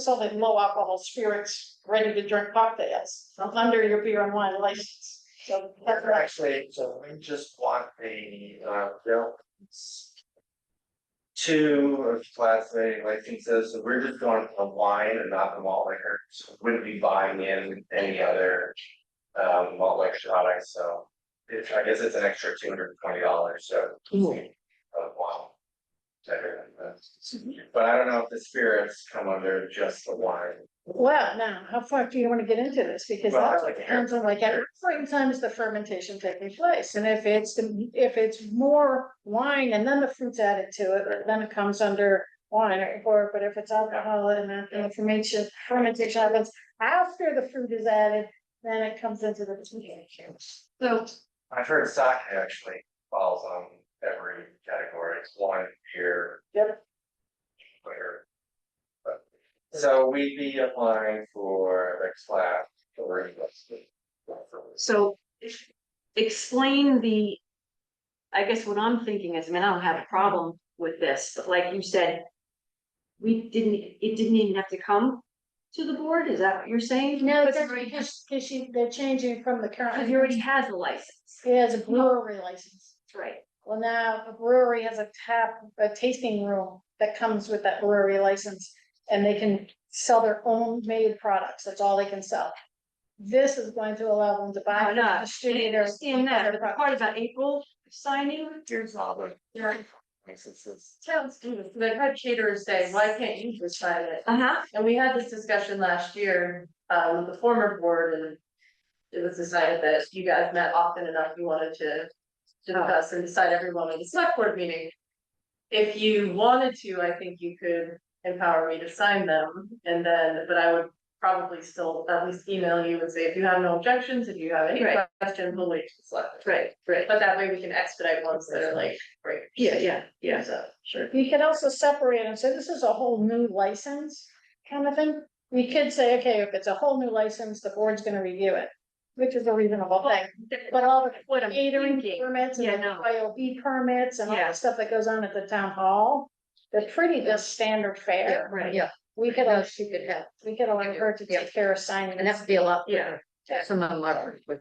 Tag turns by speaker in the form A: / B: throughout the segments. A: selling low alcohol spirits, ready to drink cocktails under your beer and wine license. So that's
B: Or
A: right.
B: Actually, so we just want the uh bills. Two of class A licenses, so we're just going for wine and not the malt liquor, so we wouldn't be buying in any other. Um malt liquor products, so it's, I guess it's an extra two hundred and twenty dollars, so. Of wine. to everyone, but- But I don't know if the spirits come under just the wine,
A: Well, now, how far do you want to get into this? Because
B: Well, I
A: that
B: like to hear.
A: depends on like at what point in time is the fermentation taking place? And if it's, the- if it's more wine and then the fruit's added to it,
B: Right.
A: then it comes under wine or- or, but if it's alcohol and then the fermentation, fermentation happens after the fruit is added, then it comes into the. So
B: I've heard sake actually falls on every category, it's wine, beer.
A: Yep.
B: Where. but- So we'd be applying for the class three listing.
C: So if- explain the, I guess what I'm thinking is, I mean, I don't have a problem with this, but like you said, we didn't, it didn't even have to come to the board, is that what you're saying?
A: No,
C: Because
A: that's
C: it already has-
A: because, because she, they're changing from the
C: Because
A: current.
C: he already has a license,
A: He has a brewery license.
C: That's right?
A: Well, now a brewery has a tap, a tasting room that comes with that brewery license. And they can sell their own made products. That's all they can sell. This is going to allow them to buy.
C: I know, I
A: Distributor.
C: Understand that, but the part about April signing,
B: Here's all the.
D: Yeah.
B: Licenses.
D: Towns do this, they've had caterers say, why can't you just sign it?
C: uh-huh,
D: And we had this discussion last year, uh, with the former board and. It was decided that you guys met often enough, you wanted to discuss and decide everyone in the select board meeting. If you wanted to, I think you could empower me to sign them and then, but I would probably still at least email you and say, if you have no objections, if you have any
C: Right.
D: questions, we'll wait to the select.
C: right, right,
D: But that way we can expedite ones that are like, right,
C: yeah, yeah, yeah,
D: so, sure.
A: You could also separate and say, this is a whole new license kind of thing. We could say, okay, if it's a whole new license, the board's gonna review it, which is a reasonable thing. But all the
C: What I'm
A: catering
C: thinking,
A: permits
C: Yeah,
A: and the
C: no.
A: IOB permits and all
C: Yeah.
A: the stuff that goes on at the town hall. They're pretty just standard
E: Yeah,
A: fare.
E: right,
C: Right.
E: yeah,
A: We could,
E: no,
A: al-
E: she could have,
A: we could allow her to
E: Yeah.
A: take care of signing.
E: and that would be a lot,
C: yeah,
E: some of them are. but-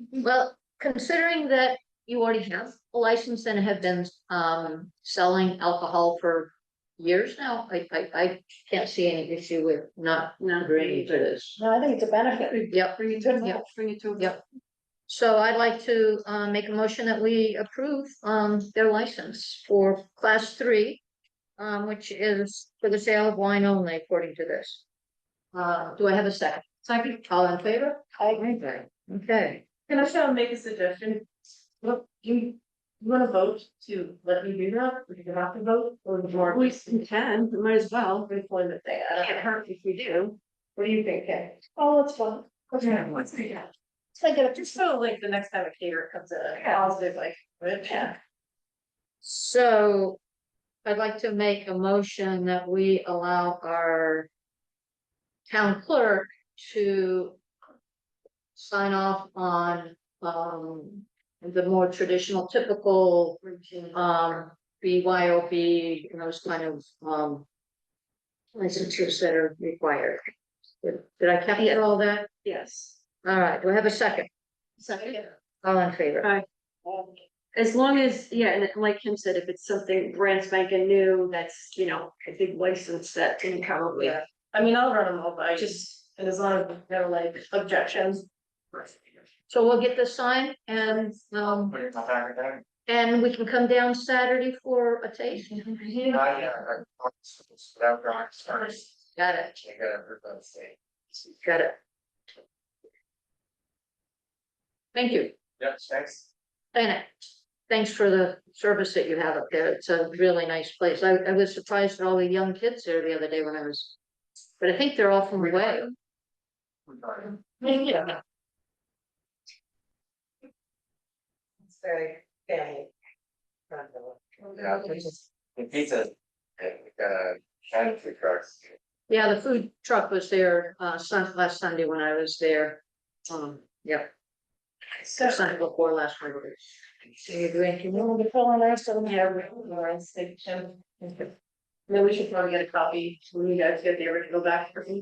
E: Mm-hmm. Well, considering that you already have a license and have been um selling alcohol for years now, I I I can't see any issue with not
C: no.
E: agreeing to this.
A: No, I think it's a benefit.
E: Yep,
C: Bring it to,
E: Yeah.
C: bring it to.
E: Yep. so I'd like to uh make a motion that we approve um their license for class three. Um, which is for the sale of wine only according to this. Uh, do I have a second? Second. All in favor?
A: I,
E: Okay. Okay.
D: Can I still make a suggestion? Look, you, you wanna vote to let me do that, or you have to vote, or more?
C: We can, we might as well,
D: Employment thing, I don't,
C: can't hurt if we do.
D: what do you think, Ken?
A: oh, it's fun.
D: Yeah.
A: It's like a-
D: Just so like the next time a caterer comes in, a positive like, but yeah.
E: So I'd like to make a motion that we allow our town clerk to sign off on, um, the more traditional typical, um, BYOB, and those kind of, um, licenses that are required. Did did I capture all that?
C: Yes.
E: All right, do I have a second?
C: Second.
E: All in favor?
C: As long as, yeah, and like Kim said, if it's something brand spanking new, that's, you know, a big license that can probably
D: Yeah. I mean, I'll run them all by, just,
C: just.
D: and as long as there are like objections.
E: So we'll get this signed and, um,
B: Put it in my bag again.
E: And we can come down Saturday for a taste.
B: Not yet, I- Without drawings first,
E: Got it,
B: I gotta prove that state.
E: got it. Thank you,
B: Yes, thanks.
E: Dana. Thanks for the service that you have up there. It's a really nice place. I, I was surprised at all the young kids there the other day when I was. But I think they're all from away.
B: We're done.
D: Yeah. It's very family.
B: Yeah, it's- The pizza, and uh, Chinese food trucks.
E: Yeah, the food truck was there, uh, Sun, last Sunday when I was there. Um, yeah,
A: So,
E: Sunday before last Monday.
A: you want to fill in the rest of them?
D: Yeah, we- we're on station. then we should probably get a copy when you guys get the original back from me.